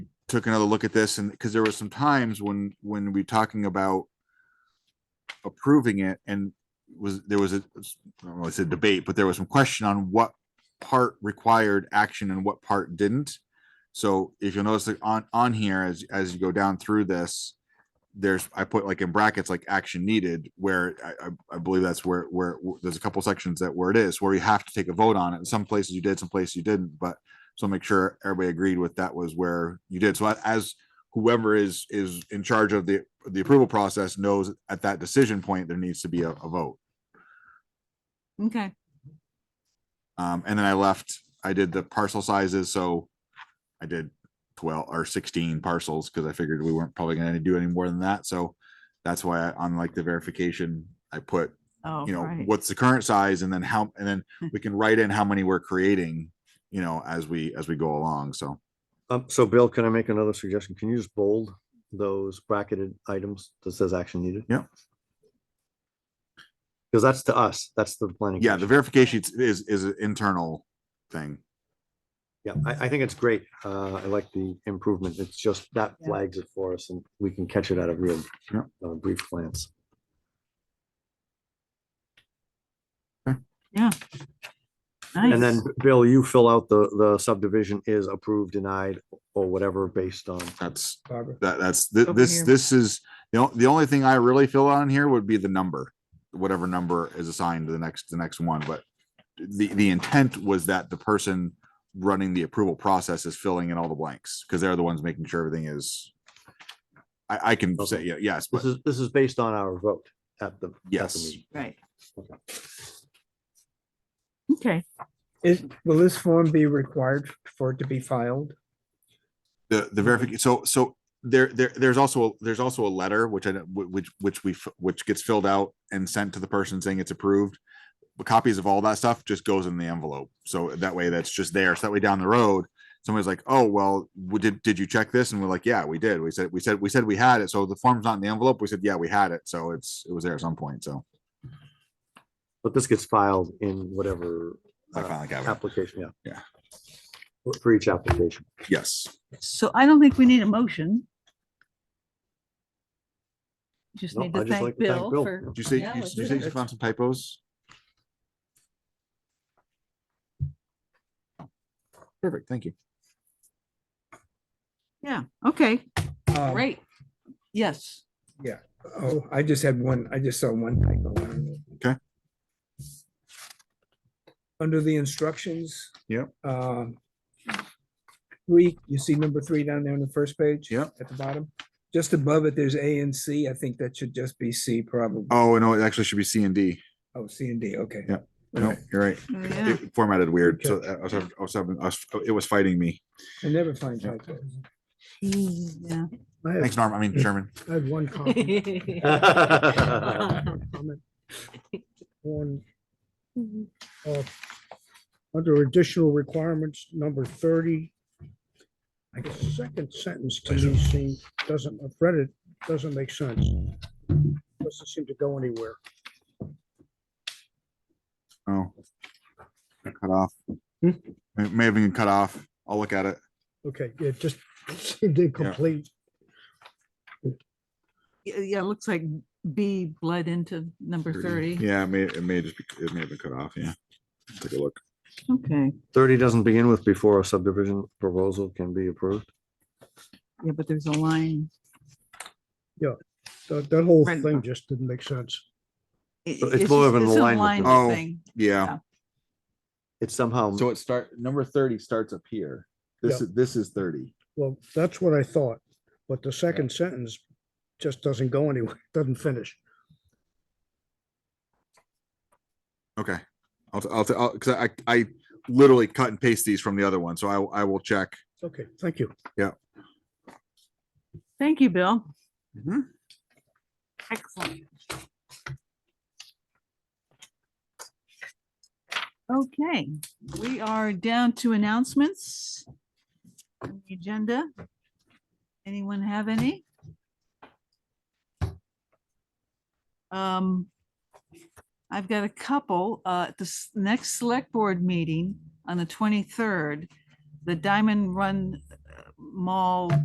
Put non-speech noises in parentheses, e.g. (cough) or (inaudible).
took another look at this and because there were some times when when we talking about approving it and was there was a I don't know, it's a debate, but there was some question on what part required action and what part didn't. So if you'll notice that on on here as as you go down through this, there's I put like in brackets like action needed where I I, I believe that's where where where- there's a couple sections that where it is where you have to take a vote on it. Some places you did, some places you didn't, but so make sure everybody agreed with that was where you did. So a- as whoever is is in charge of the the approval process knows at that decision point there needs to be a, a vote. Okay, Um, and then I left, I did the parcel sizes, so I did twelve or sixteen parcels, because I figured we weren't probably gonna do any more than that, so that's why I- on like the verification, I put, oh, you know, right. what's the current size and then how, and then we can write in how many we're creating, you know, as we, as we go along, so. Um, so Bill, can I make another suggestion? Can you just bold those bracketed items that says action needed? Yep. Because that's to us, that's the planning. Yeah, the commission. verification is, is an internal thing. Yeah, I, I think it's great. Uh, I like the improvement. It's just that Yeah. flags it for us and we can catch it at a real, Yep. uh, brief glance. And Nice. then, Bill, you fill out the, the subdivision is approved, denied, or whatever based on. That's, Barbara. that, that's, thi- Over this, here. this is, the, on- the only thing I really fill on here would be the number. Whatever number is assigned to the next, the next one, but the, the intent was that the person running the approval process is filling in all the blanks, because they're the ones making sure everything is. I, I can say, Okay. yeah, yes, This but is, this is based on our vote at the. at the yes, meeting. Right. Okay, Is, will this form be required for it to be filed? the, the verification, so, so there, there, there's also, there's also a letter, which I, don't- whi- which, which we, f- which gets filled out and sent to the person saying it's approved. But copies of all that stuff just goes in the envelope. So that way that's just there. So that way down the road, somebody's like, oh, well, we did, did you check this? And we're like, yeah, we did. We said, we said, we said we had it. So the form's not in the envelope. We said, yeah, we had it. So it's, it was there at some point. So But this gets filed in whatever. I uh, finally got it. Application, yeah. Yeah. For- For each application. Yes. so I don't think we need a motion. Just No, need I to just thank like to thank Bill Bill. for, Did you say, Yeah, you- let's did you do say that. you found some typos? Perfect. Thank you. yeah, okay, Um, great. Yes, Oh, I just had one, I just saw one typo. Okay. Under the instructions. Yep. um, Three, you see number three down there on the first page? Yep. At the bottom, just above it, there's A and C. I think that should just be C probably. Oh, no, it actually should be C and D. Oh, C and D, okay. Yep. No, Okay. you're right. Oh, It- yeah. it Formatted weird. So I was, having- I was having, I was- it was fighting me. I never find Yep. typos. yeah. I Thanks, have, Norm. I (laughs) mean, Sherman. I have one comment, comment on, uh, under additional requirements, number thirty. Like the second sentence to me seems, doesn't, I've read it, doesn't make sense. Doesn't seem to go anywhere. Oh. Got Cut off. May may have been cut off. I'll look at it. Okay, it just (laughs) seemed incomplete. Yeah, (laughs) yeah, it looks like B bled into number thirty. Yeah, it may, it may just be, it may have been cut off. Yeah. Take a look. Okay, Thirty doesn't begin with before a subdivision proposal can be approved. yeah, but there's a line. That, that whole Right. thing just didn't make sense. I- So it's just- more of an it's a alignment line than- Oh. thing. Yeah. It's somehow, it start, number thirty starts up here. This is, this is thirty. Well, that's what I thought, but the second sentence just doesn't go anywhere, (laughs) doesn't finish. Okay. I'll, I'll, I'll, cause I, I literally cut and paste these from the other one. So I, I will check. Okay, thank you. Thank you, Bill. Excellent. Okay, we are down to announcements. on the Agenda. Anyone have any? Um, I've got a couple. Uh, at the s- next select board meeting on the twenty-third, the Diamond Run uh, Mall